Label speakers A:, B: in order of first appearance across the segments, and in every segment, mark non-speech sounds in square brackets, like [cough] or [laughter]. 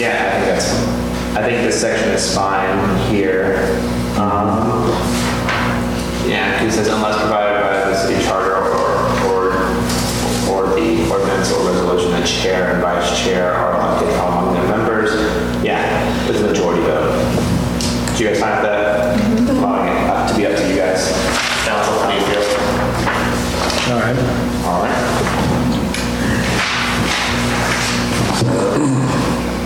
A: Yeah, I think that's, I think this section is fine here. Um, Yeah, it says unless provided by the city charter or, or, or the ordinance or resolution, the chair and vice chair are elected from among their members. Yeah, with a majority vote. Do you guys find that, allowing it up to be up to you guys? Council, how do you feel?
B: All right.
A: All right.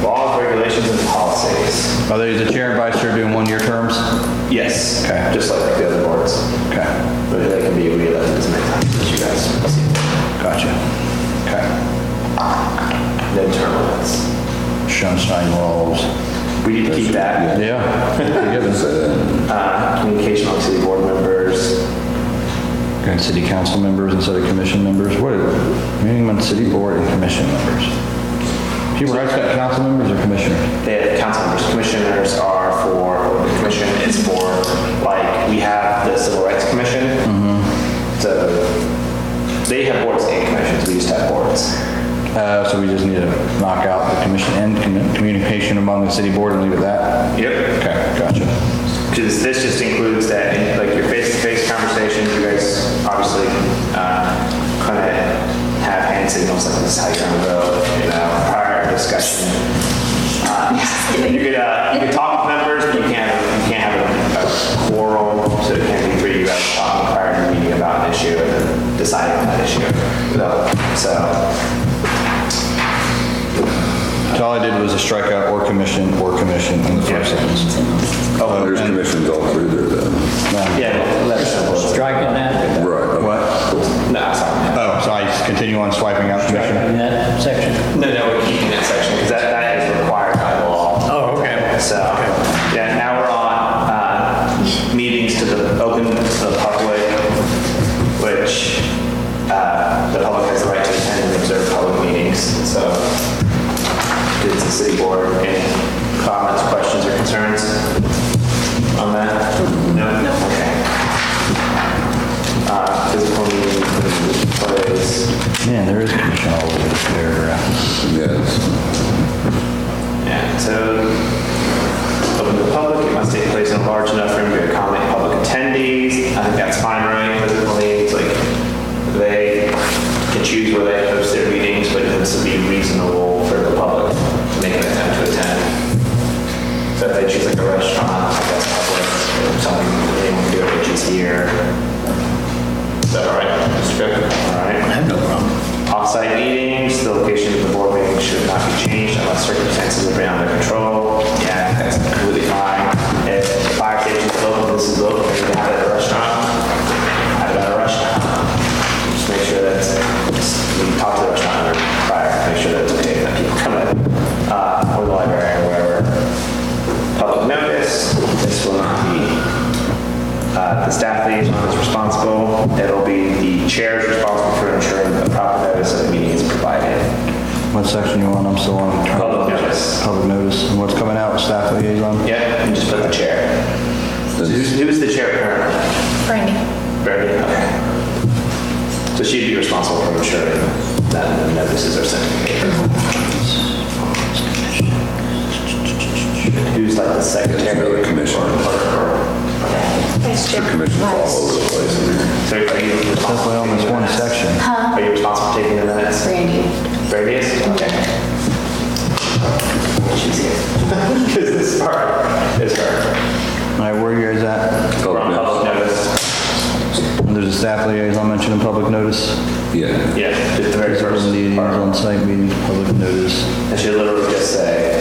A: Laws, regulations, and policies.
B: Are they the chair and vice chair doing one-year terms?
A: Yes.
B: Okay.
A: Just like the other boards.
B: Okay,
A: But they can be re-elected as many times as you guys see fit.
B: gotcha. Okay.
A: Then term limits.
B: Sunshine laws.
A: We need to keep that.
B: [laughs] Yeah.
C: Given.
A: Uh, Communication among city board members.
B: And city council members and city commission members, what, meaning on city board and commission members? Human rights got council members or commissioners?
A: The council members, commissioners are for, or the commission is for, like, we have the Civil Rights Commission. So they have boards and commissions. We used to have boards.
B: Uh, so we just need to knock out the commission and commu- communication among the city board and leave it that?
A: Yep.
B: Okay, gotcha.
A: Because this just includes that, like your face-to-face conversations, you guys obviously kind of have hand signals, like this is how you're gonna vote, you know, prior discussion. Uh, You could, uh, you could talk with members, but you can't, you can't have a- a quorum, so it can't be three, you guys talking prior to the meeting about an issue and then deciding on that issue. No. So,
B: So all I did was a strikeout or commission or commission in the first sentence.
C: Oh, there's commissions all through there then.
A: yeah, let us know.
D: Striking that,
C: Right.
B: What?
A: No, sorry.
B: Oh, so I continue on swiping out commission?
D: striking that section.
A: No, no, we're keeping that section, because that, that is required by the law.
D: Oh, okay.
A: So, yeah, now we're on uh, meetings to the, open to the public, which uh, the public has the right to attend and observe public meetings, so it's the city board, any comments, questions, or concerns on that? No? No. Okay. Uh, Physical meeting, place,
B: Man, there is commission all over this paragraph.
C: Yes.
A: Yeah, so open to the public, it must take place in a large enough room to accommodate public attendees. I think that's fine, right? Physically, it's like they can choose where they host their meetings, but it needs to be reasonable for the public to make an attempt to attend. So if they choose like a restaurant, I guess public, or something, they want to do E it, which is here. Is that all right? Mr. Cook? All right. I have no problem. Off-site meetings, the location of the board meeting should not be changed unless circumstances are beyond their control. Yeah, I think that's completely fine. If the fire station is open, this is open, if you have it at a restaurant, have it at a restaurant. Just make sure that, we talk to the restaurant owner prior, make sure that it's okay, that people come in, uh, or the library, or wherever. Public notice, this will not be uh, The staff liaison is responsible. It'll be the chair is responsible for ensuring the proper notice of the meeting is provided.
B: What section you on? I'm still on.
A: Public notice.
B: Public notice. And what's coming out, staff liaison?
A: Yep, and just put the chair. So Who's who's the chair currently?
E: Brandy.
A: Brandy, okay. So she'd be responsible for ensuring that the notices are sent to the paper. Who's like the secretary?
C: Another commission.
E: Vice chair.
C: Commissions all over the place.
A: So are you
B: That's
A: responsible?
B: why on
A: for taking
B: this
A: the
B: one
A: minutes?
B: section.
A: Are
B: Uh-huh.
A: you responsible for taking the minutes?
E: Brandy.
A: Previous? Okay. She's here. [laughs] Because this part is her.
B: All right, where you guys at?
A: We're on
C: Public
A: public notice.
B: There's a staff liaison mentioned in public notice.
C: notice. Yeah.
A: Yeah, just the very first
B: Meetings,
A: part.
B: on-site meetings, public notice.
A: It should literally just say,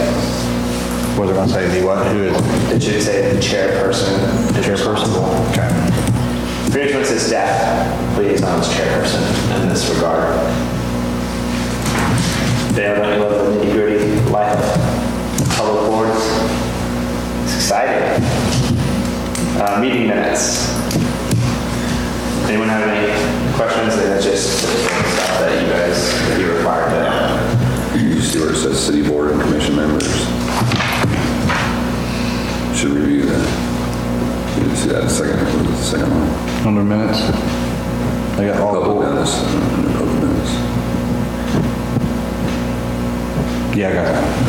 B: Whether on-site, the what, who is?
A: it should say the chairperson. The chairperson.
B: Okay.
A: Pretty much says staff liaison is chairperson in this regard. They have any level of nitty gritty life of public boards. It's exciting. Uh, meeting minutes. Anyone have any questions? And it's just typical stuff that you guys, that you require to.
C: You see where it says city board and commission members? Should review that. You didn't see that second, second one.
B: Under minutes? I got all,
C: Public Mm-hmm.
B: four.
C: notice. Public notice.
B: yeah, I got that.